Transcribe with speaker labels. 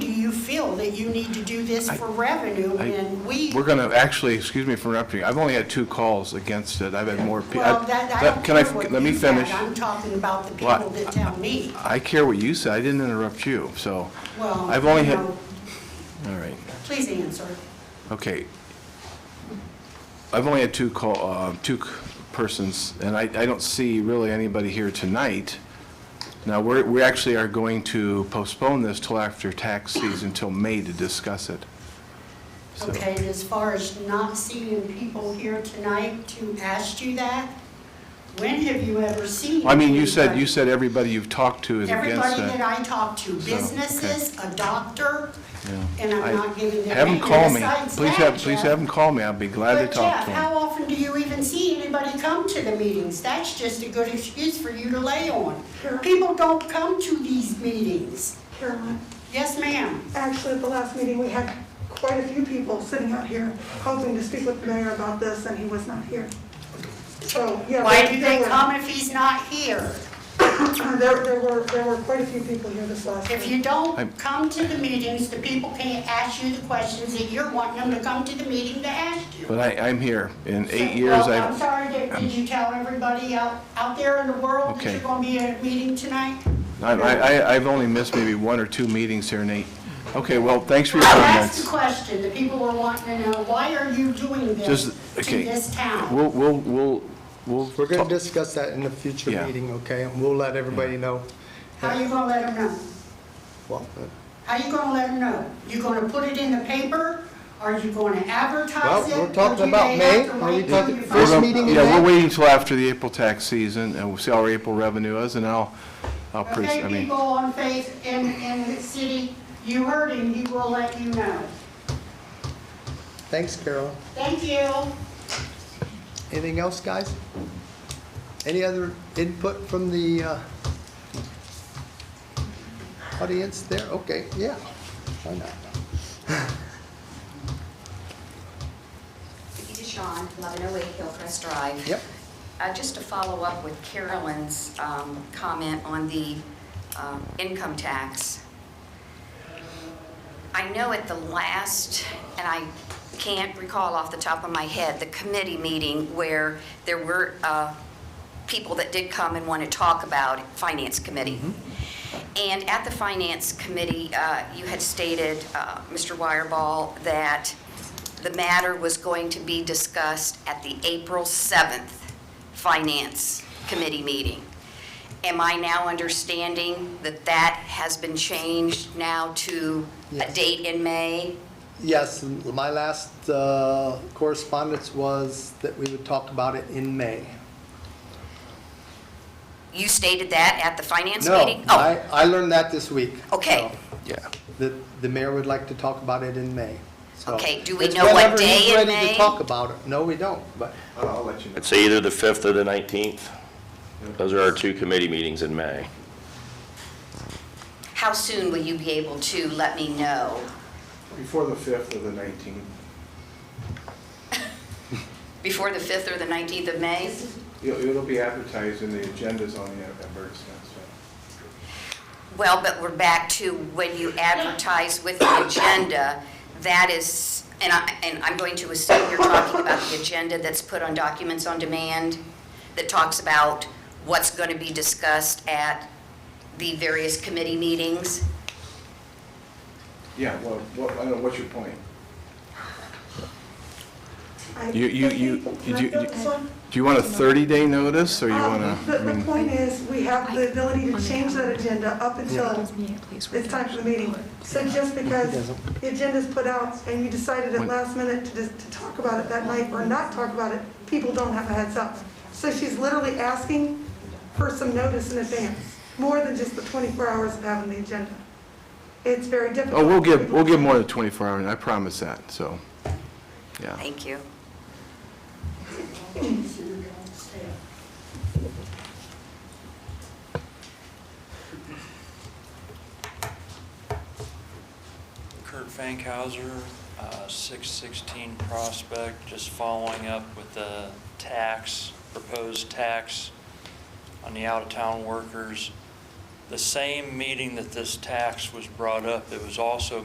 Speaker 1: feel that you need to do this for revenue,
Speaker 2: I-
Speaker 1: and we,
Speaker 2: We're going to, actually, excuse me for interrupting, I've only had two calls against it, I've had more. pe-
Speaker 1: well, that, I don't
Speaker 2: Can I,
Speaker 1: care what
Speaker 2: let me
Speaker 1: you had.
Speaker 2: finish.
Speaker 1: I'm talking about the
Speaker 2: Well,
Speaker 1: people that tell me.
Speaker 2: I care what you said, I didn't interrupt you, so.
Speaker 1: Well,
Speaker 2: I've only
Speaker 1: you
Speaker 2: had,
Speaker 1: know,
Speaker 2: all right,
Speaker 1: Please answer.
Speaker 2: okay. I've only had two call, uh, two c- persons, and I, I don't see really anybody here tonight. Now, we're, we actually are going to postpone this till after tax season, till May to discuss it. So-
Speaker 1: Okay, and as far as not seeing people here tonight to ask you that, when have you ever seen?
Speaker 2: I mean, you said,
Speaker 1: anybody-
Speaker 2: you said everybody you've talked to is against
Speaker 1: Everybody that
Speaker 2: that.
Speaker 1: I talk to,
Speaker 2: So, okay.
Speaker 1: businesses, a doctor,
Speaker 2: Yeah.
Speaker 1: and
Speaker 2: I-
Speaker 1: I'm not giving their
Speaker 2: Have
Speaker 1: name. And
Speaker 2: them call me.
Speaker 1: besides
Speaker 2: Please
Speaker 1: that,
Speaker 2: have, please
Speaker 1: Jeff-
Speaker 2: have them call me. I'll be glad to
Speaker 1: But
Speaker 2: talk
Speaker 1: Jeff,
Speaker 2: to them.
Speaker 1: how often do you even see anybody come to the meetings? That's just a good excuse for you to lay on. People don't come to these meetings.
Speaker 3: Caroline,
Speaker 1: Yes, ma'am.
Speaker 3: actually, at the last meeting, we had quite a few people sitting out here hoping to speak with the mayor about this, and he was not here. So, yeah.
Speaker 1: Why
Speaker 3: there-
Speaker 1: do
Speaker 3: there
Speaker 1: they
Speaker 3: were-
Speaker 1: come if he's not here?
Speaker 3: Uh, There, there were, there were quite a few people here this last
Speaker 1: If
Speaker 3: week.
Speaker 1: you
Speaker 2: I'm-
Speaker 1: don't come to the meetings, the people can't ask you the questions that you're wanting them to come to the meeting to ask you.
Speaker 2: But I, I'm here. In eight
Speaker 1: So,
Speaker 2: years,
Speaker 1: Well, I'm
Speaker 2: I've,
Speaker 1: sorry, did did you tell everybody out, out there in the world that
Speaker 2: Okay.
Speaker 1: you're going to be at a meeting tonight?
Speaker 2: I, I, I've only missed maybe one or two meetings here, Nate. Okay, well, thanks for your
Speaker 1: That's the
Speaker 2: comments.
Speaker 1: question, the people were wanting to know, why are you doing this
Speaker 2: Just,
Speaker 1: to
Speaker 2: okay.
Speaker 1: this town?
Speaker 2: We'll, we'll, we'll, we'll.
Speaker 4: We're going
Speaker 2: talk-
Speaker 4: to discuss that in a future
Speaker 2: Yeah.
Speaker 4: meeting, okay? And we'll let everybody know.
Speaker 1: How you gonna let them know?
Speaker 4: Well,
Speaker 1: How you gonna let them know? You gonna put it in the paper? Are you gonna advertise
Speaker 4: Well,
Speaker 1: it?
Speaker 4: we're
Speaker 1: Or
Speaker 4: talking
Speaker 1: do
Speaker 4: about
Speaker 1: they
Speaker 4: May.
Speaker 1: have to
Speaker 4: Are
Speaker 1: wait
Speaker 4: we
Speaker 1: till
Speaker 4: talking
Speaker 1: you
Speaker 2: We're
Speaker 4: first
Speaker 1: find-
Speaker 2: gonna-
Speaker 4: meeting in
Speaker 2: Yeah, we're
Speaker 4: May?
Speaker 2: waiting until after the April tax season and we'll see how our April revenue is and I'll, I'll, pres- I
Speaker 1: Okay,
Speaker 2: mean,
Speaker 1: people on faith in, in the city, you heard him, he will let you know.
Speaker 4: thanks, Carol.
Speaker 1: Thank you.
Speaker 4: Anything else, guys? Any other input from the uh, audience there? Okay, yeah, why not?
Speaker 5: Vicki DeShawn, 1108 Hillcrest Drive.
Speaker 4: Yep.
Speaker 5: Uh, Just to follow up with Carolyn's um, comment on the um, income tax. I know at the last, and I can't recall off the top of my head, the committee meeting where there were uh, people that did come and want to talk about it, Finance Committee. And at the Finance Committee, uh, you had stated, uh, Mr. Wireball, that the matter was going to be discussed at the April 7th Finance Committee meeting. Am I now understanding that that has been changed now to a
Speaker 4: Yes.
Speaker 5: date in May?
Speaker 4: Yes, and my last uh, correspondence was that we would talk about it in May.
Speaker 5: You stated that at the Finance
Speaker 4: No,
Speaker 5: meeting?
Speaker 4: I, I learned that this week.
Speaker 5: Oh. Okay.
Speaker 4: so.
Speaker 2: yeah.
Speaker 4: that the mayor would like to talk about it in May. So-
Speaker 5: Okay, do we
Speaker 4: It's
Speaker 5: know what
Speaker 4: whenever he's
Speaker 5: day in
Speaker 4: ready to
Speaker 5: May?
Speaker 4: talk about it. No, we don't, but
Speaker 2: I'll let you know.
Speaker 6: It's either the 5th or the 19th. Those are our two committee meetings in May.
Speaker 5: Oh, How soon will you be able to let me know?
Speaker 2: Before the fifth or the nineteenth.
Speaker 5: Before the 5th or the 19th of May?
Speaker 2: It'll be advertised and the agenda's on the advertisement,
Speaker 5: Well, but we're back to when you advertise with the agenda, that is, and I, and I'm going to assume you're talking about the agenda that's put on Documents on Demand that talks about what's going to be discussed at the various committee meetings.
Speaker 7: Yeah, well, what, I don't know, what's your point?
Speaker 3: I-
Speaker 2: You- you- you-
Speaker 3: Can I
Speaker 2: you-
Speaker 3: fill
Speaker 2: you-
Speaker 3: this one?
Speaker 2: Do you want a 30-day notice, or you want
Speaker 3: Um,
Speaker 2: to,
Speaker 3: The,
Speaker 2: I
Speaker 3: the
Speaker 2: mean,
Speaker 3: point is, we have the ability to change that agenda up until it's time for the meeting. So just because the agenda's put out and you decided at
Speaker 2: When-
Speaker 3: last minute to, just- to talk about it that night or not talk about it, people don't have a heads up. So she's literally asking for some notice in advance, more than just the 24 hours of having the agenda. It's very difficult.
Speaker 2: oh, we'll give, we'll give more than 24 hours, I promise that, so, yeah.
Speaker 5: Thank you.
Speaker 8: Kurt Fankhauser, uh, 616 Prospect, just following up with the tax, proposed tax on the out-of-town workers. The same meeting that this tax was brought up, it was also